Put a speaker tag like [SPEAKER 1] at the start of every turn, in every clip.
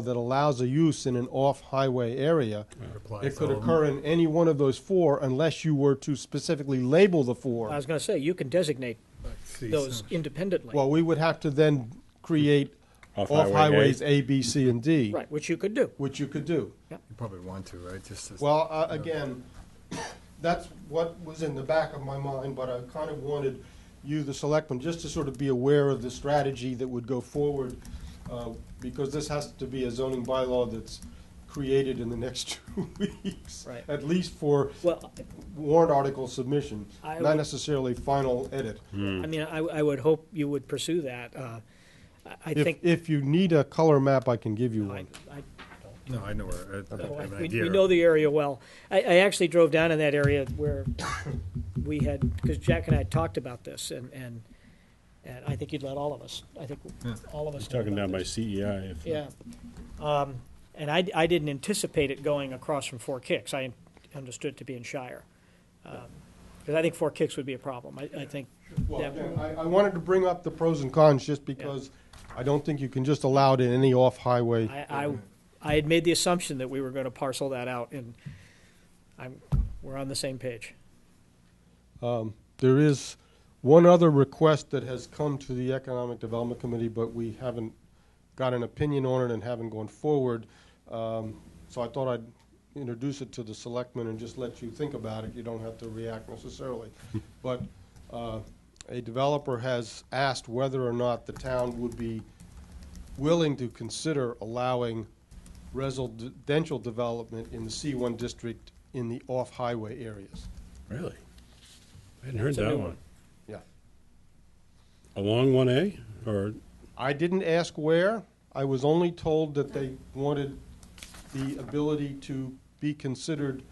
[SPEAKER 1] that allows a use in an off-highway area, it could
[SPEAKER 2] um,
[SPEAKER 1] occur in any one of those four unless you were to specifically label the
[SPEAKER 3] I
[SPEAKER 1] four.
[SPEAKER 3] was gonna say, you can designate those independently,
[SPEAKER 1] Well, we would have to then create
[SPEAKER 2] Off-highway A.
[SPEAKER 1] off-highways A, B, C, and D,
[SPEAKER 3] right, which you could do.
[SPEAKER 1] which you could do.
[SPEAKER 4] You probably want to, right? Just as.
[SPEAKER 1] Well, uh, again, that's what was in the back of my mind, but I kind of wanted you, the selectmen, just to sort of be aware of the strategy that would go forward, uh, because this has to be a zoning bylaw that's created in the next two weeks.
[SPEAKER 3] Right.
[SPEAKER 1] At least for
[SPEAKER 3] Well,
[SPEAKER 1] warrant article submission,
[SPEAKER 3] I
[SPEAKER 1] not
[SPEAKER 3] would- Hmm.
[SPEAKER 1] necessarily final edit.
[SPEAKER 3] I mean, I, I would hope you would pursue that. Uh, I- I
[SPEAKER 1] If,
[SPEAKER 3] think,
[SPEAKER 1] if you need a color map, I can give you
[SPEAKER 3] I,
[SPEAKER 1] one.
[SPEAKER 3] I
[SPEAKER 4] No, I know where. uh, I- I
[SPEAKER 3] Well,
[SPEAKER 4] have an
[SPEAKER 3] We
[SPEAKER 4] idea.
[SPEAKER 3] we know the area well. I, I actually drove down in that area where we had, because Jack and I had talked about this, and, and, and I think you'd let all of us, I think all of us. know
[SPEAKER 2] Talking
[SPEAKER 3] about
[SPEAKER 2] down by
[SPEAKER 3] this.
[SPEAKER 2] CEI. if-
[SPEAKER 3] Yeah. Um, And I, I didn't anticipate it going across from Four Kicks. I understood it to be in Shire. Um, Because I think Four Kicks would be a problem. I, I think,
[SPEAKER 1] Well,
[SPEAKER 3] that-
[SPEAKER 1] again, I, I wanted to bring up the pros and cons just because I don't think you can just allow it in any off-highway.
[SPEAKER 3] I, I, I had made the assumption that we were going to parcel that out, and I'm, we're on the same page.
[SPEAKER 1] There is one other request that has come to the Economic Development Committee, but we haven't got an opinion on it and haven't gone forward. Um, So I thought I'd introduce it to the selectmen and just let you think about it. You don't have to react necessarily. But uh, a developer has asked whether or not the town would be willing to consider allowing residential development in the C1 district in the off-highway areas.
[SPEAKER 2] Really? I hadn't heard
[SPEAKER 3] It's a
[SPEAKER 2] that
[SPEAKER 3] new
[SPEAKER 2] one.
[SPEAKER 3] one.
[SPEAKER 1] Yeah.
[SPEAKER 2] Along one A or,
[SPEAKER 1] I didn't ask where. I was only told that they wanted the ability to be considered,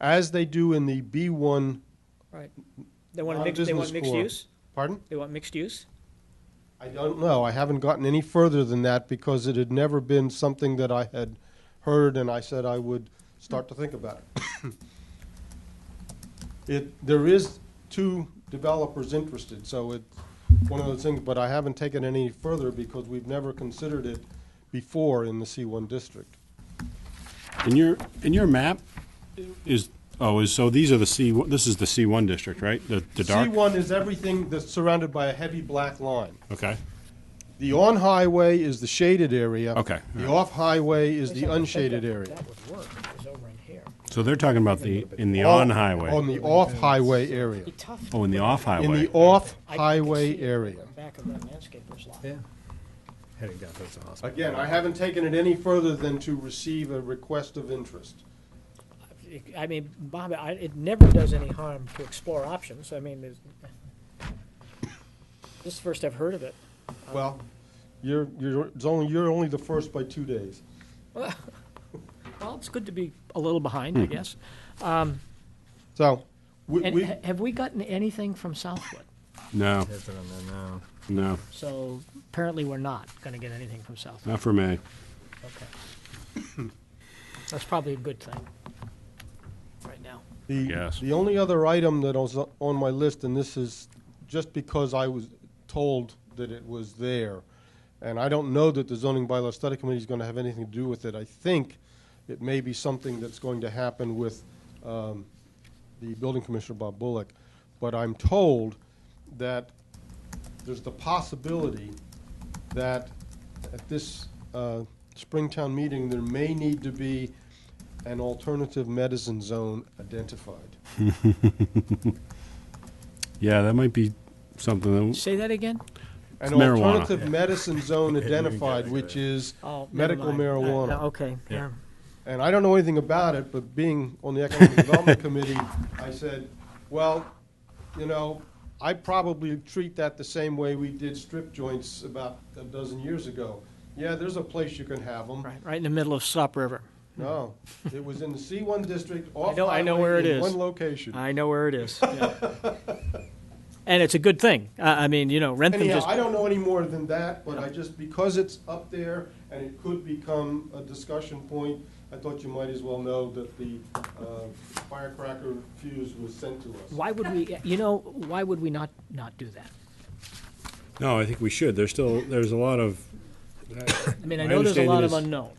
[SPEAKER 1] as they do in the B1,
[SPEAKER 3] Right. They want
[SPEAKER 1] Not
[SPEAKER 3] mix, they want
[SPEAKER 1] business
[SPEAKER 3] mixed
[SPEAKER 1] core.
[SPEAKER 3] use?
[SPEAKER 1] pardon?
[SPEAKER 3] They want mixed use?
[SPEAKER 1] I don't know. I haven't gotten any further than that because it had never been something that I had heard and I said I would start to think about it. It, there is two developers interested, so it's one of those things, but I haven't taken any further because we've never considered it before in the C1 district.
[SPEAKER 2] in your, in your map is, oh, is, so these are the C, this is the C1 district, right? The, the dark?
[SPEAKER 1] C1 is everything that's surrounded by a heavy black line.
[SPEAKER 2] Okay,
[SPEAKER 1] The on-highway is the shaded area.
[SPEAKER 2] Okay,
[SPEAKER 1] The
[SPEAKER 2] alright.
[SPEAKER 1] off-highway is
[SPEAKER 3] I
[SPEAKER 1] the
[SPEAKER 3] sort of think
[SPEAKER 1] unshaded
[SPEAKER 3] that-
[SPEAKER 1] area.
[SPEAKER 3] That would work, if it was over in here.
[SPEAKER 2] so they're talking about the, in the
[SPEAKER 1] All- On
[SPEAKER 2] on-highway.
[SPEAKER 1] the off-highway area.
[SPEAKER 2] Oh, in the
[SPEAKER 1] In
[SPEAKER 2] off-highway.
[SPEAKER 1] the off-highway area.
[SPEAKER 3] Back of that landscaper's lot.
[SPEAKER 4] Yeah. Heading down towards the hospital.
[SPEAKER 1] Again, I haven't taken it any further than to receive a request of interest.
[SPEAKER 3] I mean, Bob, I, it never does any harm to explore options, I mean, there's, this is the first I've heard of it.
[SPEAKER 1] Well, you're, you're, it's only, you're only the first by two days.
[SPEAKER 3] Well, it's good to be a little behind,
[SPEAKER 1] Hmm.
[SPEAKER 3] I guess.
[SPEAKER 1] So, we,
[SPEAKER 3] And
[SPEAKER 1] we,
[SPEAKER 3] ha- have we gotten anything from Southwood?
[SPEAKER 2] No,
[SPEAKER 4] There's it on there now.
[SPEAKER 2] no,
[SPEAKER 3] So apparently we're not gonna get anything from Southwood,
[SPEAKER 2] not for me.
[SPEAKER 3] okay. That's probably a good thing, right now.
[SPEAKER 1] The,
[SPEAKER 2] Yes.
[SPEAKER 1] the only other item that was on my list, and this is just because I was told that it was there, and I don't know that the zoning bylaw study committee is going to have anything to do with it. I think it may be something that's going to happen with um, the building commissioner, Bob Bullock, but I'm told that there's the possibility that at this uh, Springtown meeting, there may need to be an alternative medicine zone identified.
[SPEAKER 2] Yeah, that might be something that,
[SPEAKER 3] Say that again?
[SPEAKER 1] An
[SPEAKER 2] It's marijuana.
[SPEAKER 1] alternative medicine zone identified,
[SPEAKER 4] Yeah.
[SPEAKER 1] which is
[SPEAKER 3] Oh, never
[SPEAKER 1] medical
[SPEAKER 3] mind. Uh, no,
[SPEAKER 1] marijuana.
[SPEAKER 3] Okay, yeah.
[SPEAKER 1] And I don't know anything about it, but being on the Economic Development Committee, I said, well, you know, I probably treat that the same way we did strip joints about a dozen years ago. Yeah, there's a place you can have them.
[SPEAKER 3] Right, right in the middle of Stop River.
[SPEAKER 1] No, it was in the C1 district, off
[SPEAKER 3] know- I know where it
[SPEAKER 1] highway, in
[SPEAKER 3] is.
[SPEAKER 1] one location.
[SPEAKER 3] I know where it is. yeah. And it's a good thing. I, I mean, you know, Rentham
[SPEAKER 1] Anyhow,
[SPEAKER 3] just,
[SPEAKER 1] I don't know any more than that, but I just, because it's up there and it could become a discussion point, I thought you might as well know that the uh, firecracker fuse was sent to us.
[SPEAKER 3] why would we, you know, why would we not, not do that?
[SPEAKER 2] no, I think we should. There's still, there's a lot of,
[SPEAKER 3] I mean, I
[SPEAKER 2] My
[SPEAKER 3] know there's a
[SPEAKER 2] understanding
[SPEAKER 3] lot of
[SPEAKER 2] is-
[SPEAKER 3] unknown.